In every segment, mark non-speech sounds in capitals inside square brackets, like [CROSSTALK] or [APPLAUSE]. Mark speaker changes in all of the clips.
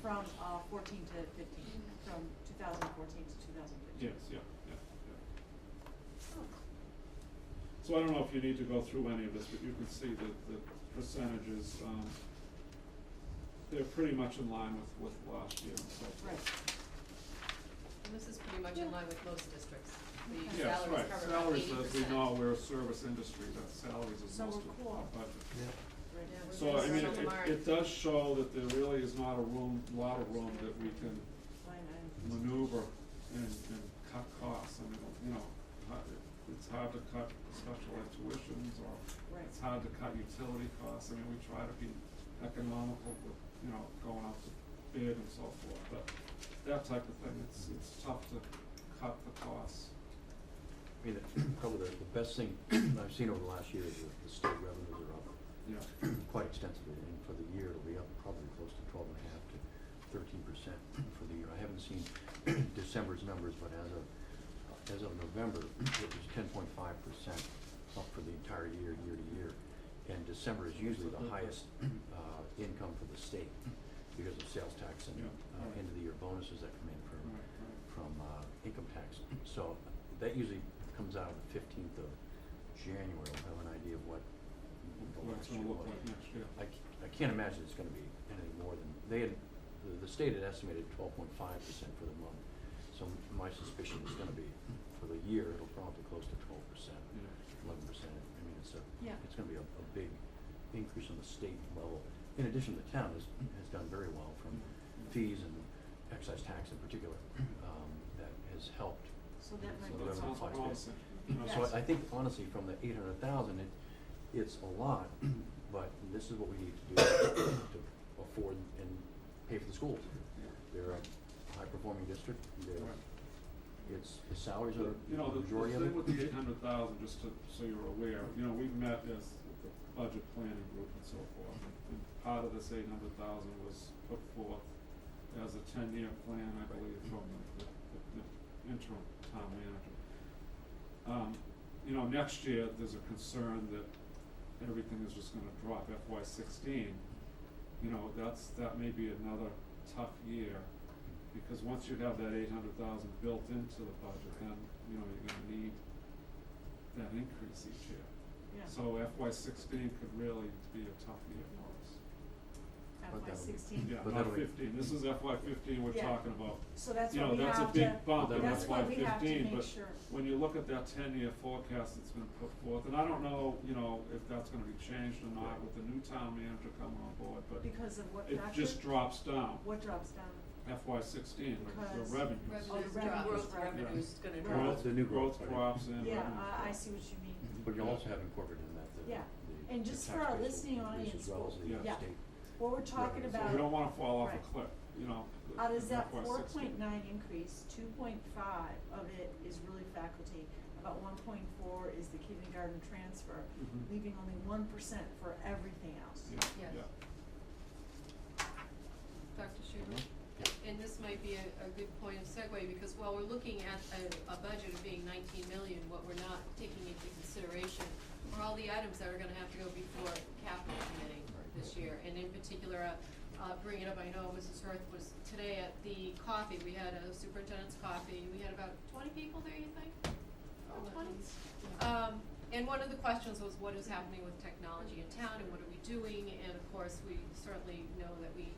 Speaker 1: from uh, fourteen to fifteen, from two thousand fourteen to two thousand
Speaker 2: Yes,
Speaker 1: fifteen. Oh,
Speaker 2: yeah, yeah, yeah. So I don't know if you need to go through any of this, but you can see that the percentages, um, they're pretty much in line with, with last year, so.
Speaker 1: Right,
Speaker 3: And this is pretty much in line with most districts. The
Speaker 2: Yes,
Speaker 3: salary is
Speaker 2: right,
Speaker 3: covered by
Speaker 2: salaries,
Speaker 3: eighty percent.
Speaker 2: as we know, we're a service industry, that salaries is
Speaker 1: So
Speaker 2: most
Speaker 1: we're
Speaker 2: of
Speaker 1: cool.
Speaker 2: our budget.
Speaker 1: right.
Speaker 3: Yeah, we're
Speaker 2: So I
Speaker 3: gonna
Speaker 2: mean,
Speaker 3: circle
Speaker 2: it,
Speaker 3: the mark.
Speaker 2: it does show that there really is not a room, lot of room that we can
Speaker 1: Line item.
Speaker 2: maneuver and, and cut costs, I mean, you know, hu- it's hard to cut special ed tuitions or
Speaker 1: Right.
Speaker 2: it's hard to cut utility costs, I mean, we try to be economical with, you know, going out to bid and so forth, but that type of thing, it's, it's tough to cut the costs.
Speaker 4: I mean, probably the, the best thing [CLEARS THROAT] I've seen over the last year is that the state revenues are up
Speaker 2: Yeah,
Speaker 4: quite extensively, and for the year, it'll be up probably close to twelve and a half to thirteen percent for the year. I haven't seen [CLEARS THROAT] December's numbers, but as of, as of November, it was ten point five percent up for the entire year, year to year. And December is usually the highest, uh, income for the state because of sales tax and,
Speaker 2: Yeah,
Speaker 4: uh,
Speaker 2: alright.
Speaker 4: end of the year bonuses that come in from,
Speaker 2: right, right.
Speaker 4: from uh, income tax. So that usually comes out the fifteenth of January, I'll have an idea of what the
Speaker 2: What it's
Speaker 4: last year
Speaker 2: gonna look
Speaker 4: was.
Speaker 2: like next year.
Speaker 4: I, c- I can't imagine it's gonna be anything more than, they had, the- the state had estimated twelve point five percent for the month. So m- my suspicion is gonna be, for the year, it'll probably close to twelve percent,
Speaker 2: Yeah,
Speaker 4: eleven percent. I mean, it's a,
Speaker 1: Yeah.
Speaker 4: it's gonna be a, a big increase on the state level. In addition, the town has, has done very well from
Speaker 2: yeah,
Speaker 4: fees and excise tax in particular,
Speaker 1: Mm-hmm.
Speaker 4: um, that has helped.
Speaker 1: So that
Speaker 2: yeah.
Speaker 1: might be.
Speaker 4: So
Speaker 2: That
Speaker 4: whatever
Speaker 2: sounds
Speaker 4: applies to it.
Speaker 2: promising, you know,
Speaker 1: Yes.
Speaker 2: so
Speaker 4: So I, I think honestly, from the eight hundred thousand, it, it's a lot,
Speaker 1: Mm-hmm.
Speaker 4: but this is what we need
Speaker 1: [COUGHS]
Speaker 4: to do to afford and pay for the schools.
Speaker 2: Yeah.
Speaker 4: They're a high-performing district,
Speaker 2: Right.
Speaker 4: they're, it's, the salaries are,
Speaker 2: You know, the,
Speaker 4: the
Speaker 2: the
Speaker 4: majority of it.
Speaker 2: thing with the eight hundred thousand, just to, so you're aware, you know, we've met as the budget planning group and so forth. And part of this eight hundred thousand was put forth as a ten-year plan, I believe, from the, the, the interim town manager. Um, you know, next year, there's a concern that everything is just gonna drop FY sixteen. You know, that's, that may be another tough year because once you have that eight hundred thousand built into the budget, then, you know, you're gonna need that increase each year.
Speaker 1: Yeah.
Speaker 2: So FY sixteen could really be a tough year for us.
Speaker 4: But
Speaker 1: FY
Speaker 4: that would be-
Speaker 1: sixteen.
Speaker 2: Yeah,
Speaker 4: But
Speaker 2: not
Speaker 4: that'll be-
Speaker 2: fifteen, this is FY fifteen we're
Speaker 1: Yeah.
Speaker 2: talking about.
Speaker 1: So that's
Speaker 2: You
Speaker 1: what
Speaker 2: know,
Speaker 1: we
Speaker 2: that's a
Speaker 1: have to,
Speaker 2: big bump in
Speaker 1: that's
Speaker 2: FY
Speaker 1: what we have to
Speaker 2: fifteen,
Speaker 1: make
Speaker 2: but
Speaker 1: sure.
Speaker 2: when you look at that ten-year forecast that's been put forth, and I don't know, you know, if that's gonna be changed or not with the new town manager coming on board, but
Speaker 1: Because of what
Speaker 2: it
Speaker 1: factor?
Speaker 2: just drops down,
Speaker 1: What drops down?
Speaker 2: FY sixteen, the revenues.
Speaker 1: Because- Oh, the revenues,
Speaker 3: Revenues drop, growth
Speaker 1: right.
Speaker 3: revenues is gonna
Speaker 1: Right.
Speaker 3: drop.
Speaker 2: Growth,
Speaker 4: The new growth,
Speaker 2: growth
Speaker 4: right.
Speaker 2: drops in.
Speaker 1: Yeah,
Speaker 2: revenues
Speaker 1: I, I
Speaker 2: drop.
Speaker 1: see what you mean.
Speaker 4: But you also have incorporated in that the,
Speaker 1: Yeah.
Speaker 4: the-
Speaker 1: And
Speaker 4: the
Speaker 1: just
Speaker 4: tax
Speaker 1: for our
Speaker 4: base will
Speaker 1: listening
Speaker 4: increase
Speaker 1: audience,
Speaker 4: As well as the
Speaker 2: we'll-
Speaker 4: state.
Speaker 1: yeah. What we're talking
Speaker 4: Right, so
Speaker 1: about.
Speaker 2: So we don't wanna fall off
Speaker 1: Right.
Speaker 2: a cliff, you know.
Speaker 1: Out of that
Speaker 2: FY16.
Speaker 1: four point nine increase, two point five of it is really faculty. About one point four is the kindergarten transfer,
Speaker 2: Mhm.
Speaker 1: leaving only one percent for everything else.
Speaker 2: Yeah,
Speaker 3: Yes.
Speaker 2: yeah.
Speaker 3: Dr. Schumer?
Speaker 4: Yeah.
Speaker 2: Uh-huh.
Speaker 3: And this might be a, a good point of segue, because while we're looking at a, a budget of being nineteen million, what we're not taking into consideration are all the items that are gonna have to go before capital committee
Speaker 4: Right.
Speaker 3: this year. And in particular, uh, uh, bring it up, I know Mrs. Hurth was today at the coffee, we had a superintendent's coffee, we had about twenty people there, you think? About twenty? Um, and one of the questions was what is happening with technology in town and what are we doing? And of course, we certainly know that we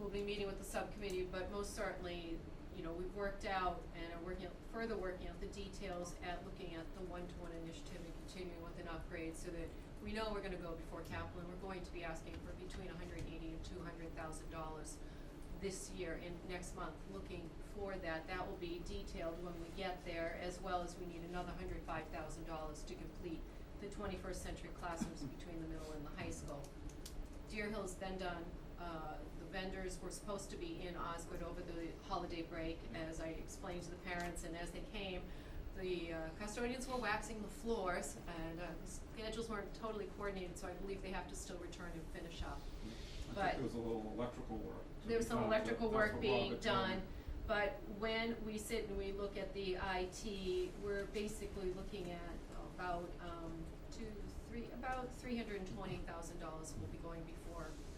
Speaker 3: will be meeting with the subcommittee, but most certainly, you know, we've worked out and are working, out- further working out the details at looking at the one-to-one initiative and continuing with an upgrade so that we know we're gonna go before capital and we're going to be asking for between hundred and eighty and two hundred thousand dollars this year and next month, looking for that. That will be detailed when we get there, as well as we need another hundred five thousand dollars to complete the twenty-first century classrooms between the middle and the high school. Deer Hill's then done, uh, the vendors were supposed to be in Osgood over the holiday break, as I explained to the parents, and as they came, the uh, custodians were waxing the floors, and, uh, schedules weren't totally coordinated, so I believe they have to still return and finish up.
Speaker 2: I
Speaker 3: But-
Speaker 2: think there was a little electrical work. to
Speaker 3: There's
Speaker 2: be
Speaker 3: some
Speaker 2: done, but
Speaker 3: electrical
Speaker 2: that's
Speaker 3: work
Speaker 2: what
Speaker 3: being
Speaker 2: Robert told me.
Speaker 3: done, but when we sit and we look at the IT, we're basically looking at about, um, two, three, about three hundred and twenty thousand dollars will be going before